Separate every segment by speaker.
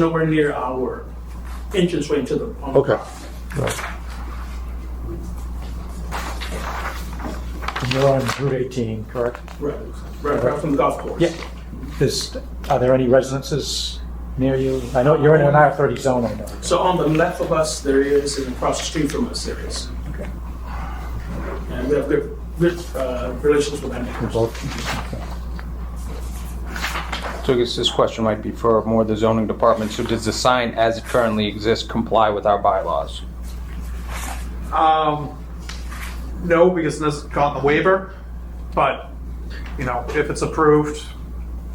Speaker 1: nowhere near our entrance way into the. um,
Speaker 2: Okay.
Speaker 3: You're on Route 18, correct?
Speaker 1: Right, right, right from the golf course.
Speaker 3: Yeah. Is, are there any residences near you? I know you're in an R30 zone, I know.
Speaker 1: So on the left of us, there is, and across the street from us, there is.
Speaker 3: Okay.
Speaker 1: And we have good, good uh, relations with our neighbors.
Speaker 4: So I guess this question might be for more the zoning department. So does the sign as it currently exists comply with our bylaws?
Speaker 5: Um, no, because this has gotten the waiver, but, you know, if it's approved,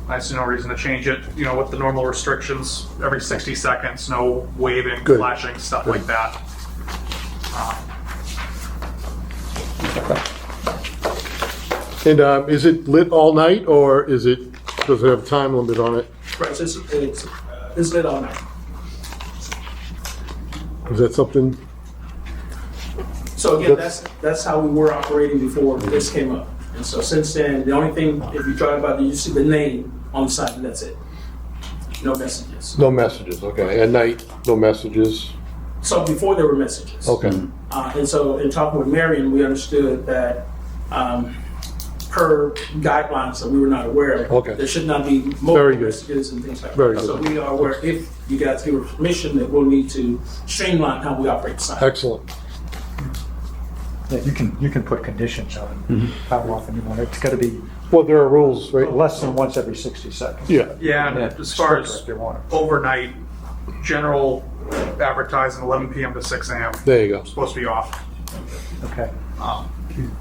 Speaker 5: I see no reason to change it, you know, with the normal restrictions, every 60 seconds, no waving,
Speaker 2: Good.
Speaker 5: flashing, stuff like that.
Speaker 2: And um, is it lit all night, or is it, does it have a time limit on it?
Speaker 1: Right, so it's, it's, uh, it's lit all night.
Speaker 2: Is that something,
Speaker 1: So again, that's, that's how we were operating before this came up. And so since then, the only thing, if you drive by, you see the name on the sign, that's it. No messages.
Speaker 2: no messages, okay, at night, no messages,
Speaker 1: So before there were messages.
Speaker 2: okay.
Speaker 1: Uh, and so in talking with Marion, we understood that, um, per guidelines that we were not aware of.
Speaker 2: Okay.
Speaker 1: There should not be
Speaker 2: Very
Speaker 1: multiple
Speaker 2: good.
Speaker 1: messages and things like that.
Speaker 2: Very good.
Speaker 1: So we are aware, if you guys give us permission, that we'll need to streamline how we operate the sign.
Speaker 2: Excellent.
Speaker 3: Yeah, you can, you can put conditions
Speaker 2: Mm-hmm.
Speaker 3: on how often you want it. It's got to be
Speaker 2: Well, there are rules, right?
Speaker 3: less than once every 60 seconds.
Speaker 2: Yeah,
Speaker 5: Yeah, and as
Speaker 3: Stricter
Speaker 5: far as
Speaker 3: If you want it.
Speaker 5: overnight, general advertising 11 PM to 6 AM,
Speaker 2: there you go.
Speaker 5: supposed to be off.
Speaker 3: Okay.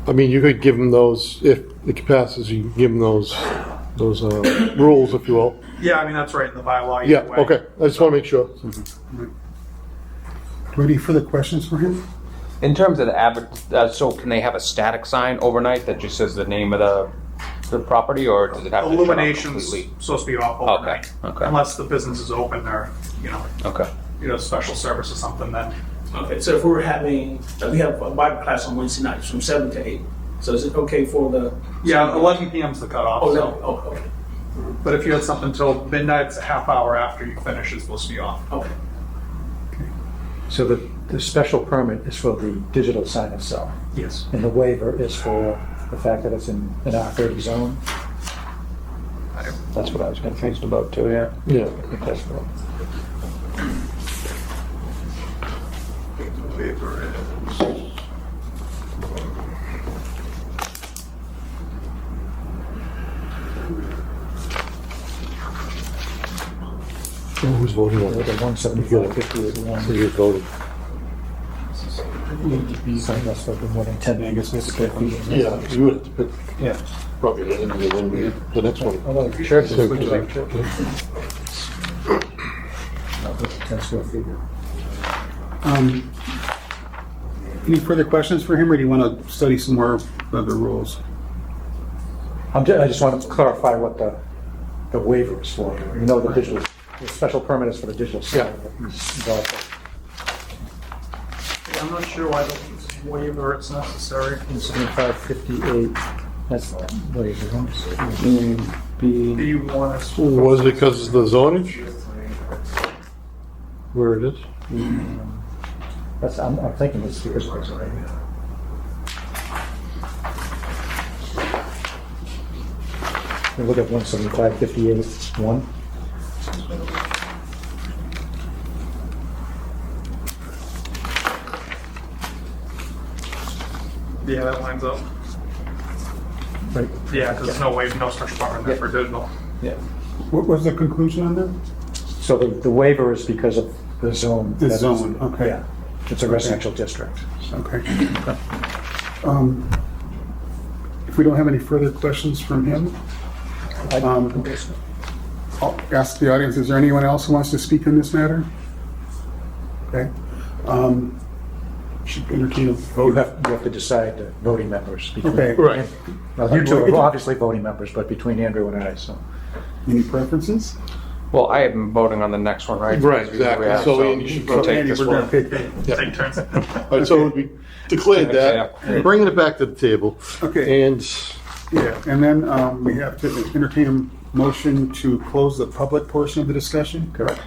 Speaker 2: I mean, you could give them those, if it passes, you can give them those, those uh, rules, if you will.
Speaker 5: Yeah, I mean, that's right in the bylaw. either
Speaker 2: Yeah,
Speaker 5: way.
Speaker 2: okay, I just want to make sure.
Speaker 6: Ready for the questions for him?
Speaker 4: In terms of the advert, uh, so can they have a static sign overnight that just says the name of the, the property or does it have to shut off
Speaker 5: Illumination's
Speaker 4: completely?
Speaker 5: supposed to be off
Speaker 4: Okay,
Speaker 5: overnight.
Speaker 4: okay.
Speaker 5: Unless the business is open or, you know,
Speaker 4: Okay.
Speaker 5: you know, special service or something, then
Speaker 1: Okay, so if we were having, uh, we have a Bible class on Wednesday nights from seven to eight. So is it okay for the?
Speaker 5: Yeah, 11 PM's the cutoff.
Speaker 1: Oh, no,
Speaker 5: so-
Speaker 1: oh, okay,
Speaker 5: But if you had something till midnight, it's a half hour after you finish, it's supposed to be off.
Speaker 1: okay.
Speaker 3: So the, the special permit is for the digital sign itself,
Speaker 5: Yes.
Speaker 3: and the waiver is for the fact that it's in an R30 zone?
Speaker 4: That's what I was confused about too, yeah.
Speaker 2: Yeah.
Speaker 4: That's what-
Speaker 2: Who's voting on
Speaker 3: The
Speaker 2: it?
Speaker 3: 175, 58,
Speaker 2: So you're voting.
Speaker 3: sign that's like the more than 10, I guess, it's 50.
Speaker 2: Yeah, you would have to pick
Speaker 3: Yeah.
Speaker 2: probably the end of the one, we- the next one.
Speaker 3: Although churches,
Speaker 2: So-
Speaker 3: which are churches. I'll put the 10 square feet.
Speaker 6: Um, Any further questions for him, or do you want to study some more of the rules?
Speaker 3: I'm, ju- I just want to clarify what the, the waiver is for. You know, the digital, the special permit is for the digital sign. Yeah.
Speaker 5: I'm not sure why the waiver it's necessary.
Speaker 3: 17558, that's the waiver.
Speaker 5: Do you want us?
Speaker 2: Was it because of the zonage? Where it is?
Speaker 3: That's, I'm, I'm thinking it's because of the waiver. We Look at 17558, 1.
Speaker 5: Yeah, that lines up.
Speaker 3: Right.
Speaker 5: Yeah, because there's no way, no special permit there for digital.
Speaker 3: Yeah.
Speaker 6: What was the conclusion on that?
Speaker 3: So the, the waiver is because of the zone.
Speaker 6: The
Speaker 3: that is-
Speaker 6: zone, okay.
Speaker 3: Yeah, it's a residential district.
Speaker 6: Okay. Um, If we don't have any further questions from him, um, I'll ask the audience, is there anyone else who wants to speak on this matter? Okay. Um, Should entertain a
Speaker 3: You
Speaker 6: vote.
Speaker 3: have, you have to decide the voting members. between-
Speaker 6: Okay.
Speaker 2: Right.
Speaker 3: Well, you two are obviously voting members, but between Andrew and I, so.
Speaker 6: Any preferences?
Speaker 4: Well, I am voting on the next one, right?
Speaker 2: Right, exactly.
Speaker 4: Yeah,
Speaker 2: So Andy should
Speaker 4: we'll
Speaker 2: vote.
Speaker 4: take
Speaker 6: Andy,
Speaker 4: this
Speaker 6: we're gonna
Speaker 4: one.
Speaker 6: pick-
Speaker 2: Yeah.
Speaker 5: Take turns.
Speaker 2: All right, so it would be declared that, bringing it back to the table.
Speaker 6: Okay.
Speaker 2: And
Speaker 6: Yeah, and then um, we have to entertain a motion to close the public portion of the discussion? Correct.